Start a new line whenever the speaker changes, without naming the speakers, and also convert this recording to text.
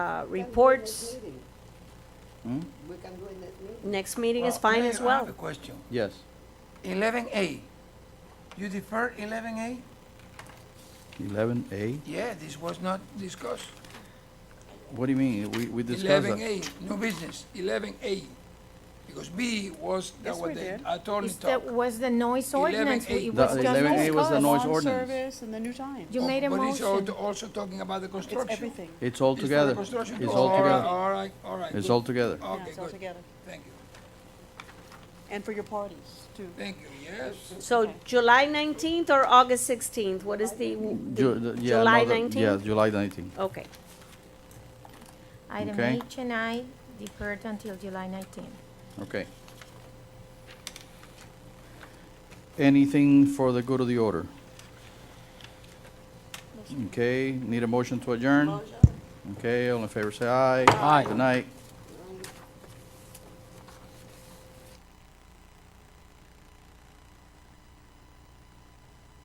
uh, reports.
Hmm?
We can do in that meeting.
Next meeting is
Well,
fine
Mayor,
as
I
well.
have a question.
Yes,
Eleven A, you deferred eleven A?
eleven A.
Yeah, this was not discussed.
What do you mean? We, we discussed
Eleven
that.
A, new business, eleven A. Because B was, that
Yes, we
was the
did.
attorney
Is that
talk.
was the noise
11A.
ordinance, we- it
The
was just
11A was the
discussed.
noise ordinance.
Service and the new time.
You made a
But it's al-
motion.
also talking about the
It's
construction.
everything.
It's all
It's for the
together.
construction.
It's
Oh,
all
all right,
together.
All right, all right.
It's
good.
all together.
Oh. Okay,
Yeah, it's all
good.
together.
Thank you,
And for your parties, too.
thank you, yes.
So July 19th or August 16th? What is the,
Ju-
the
the- yeah,
July
another- Yeah,
19th?
July nineteenth.
Okay.
Item
Okay.
H and I deferred until July 19.
Okay. Anything for the good of the order? Okay, need a motion to adjourn? Okay, all in favor, say aye. Aye. Good night.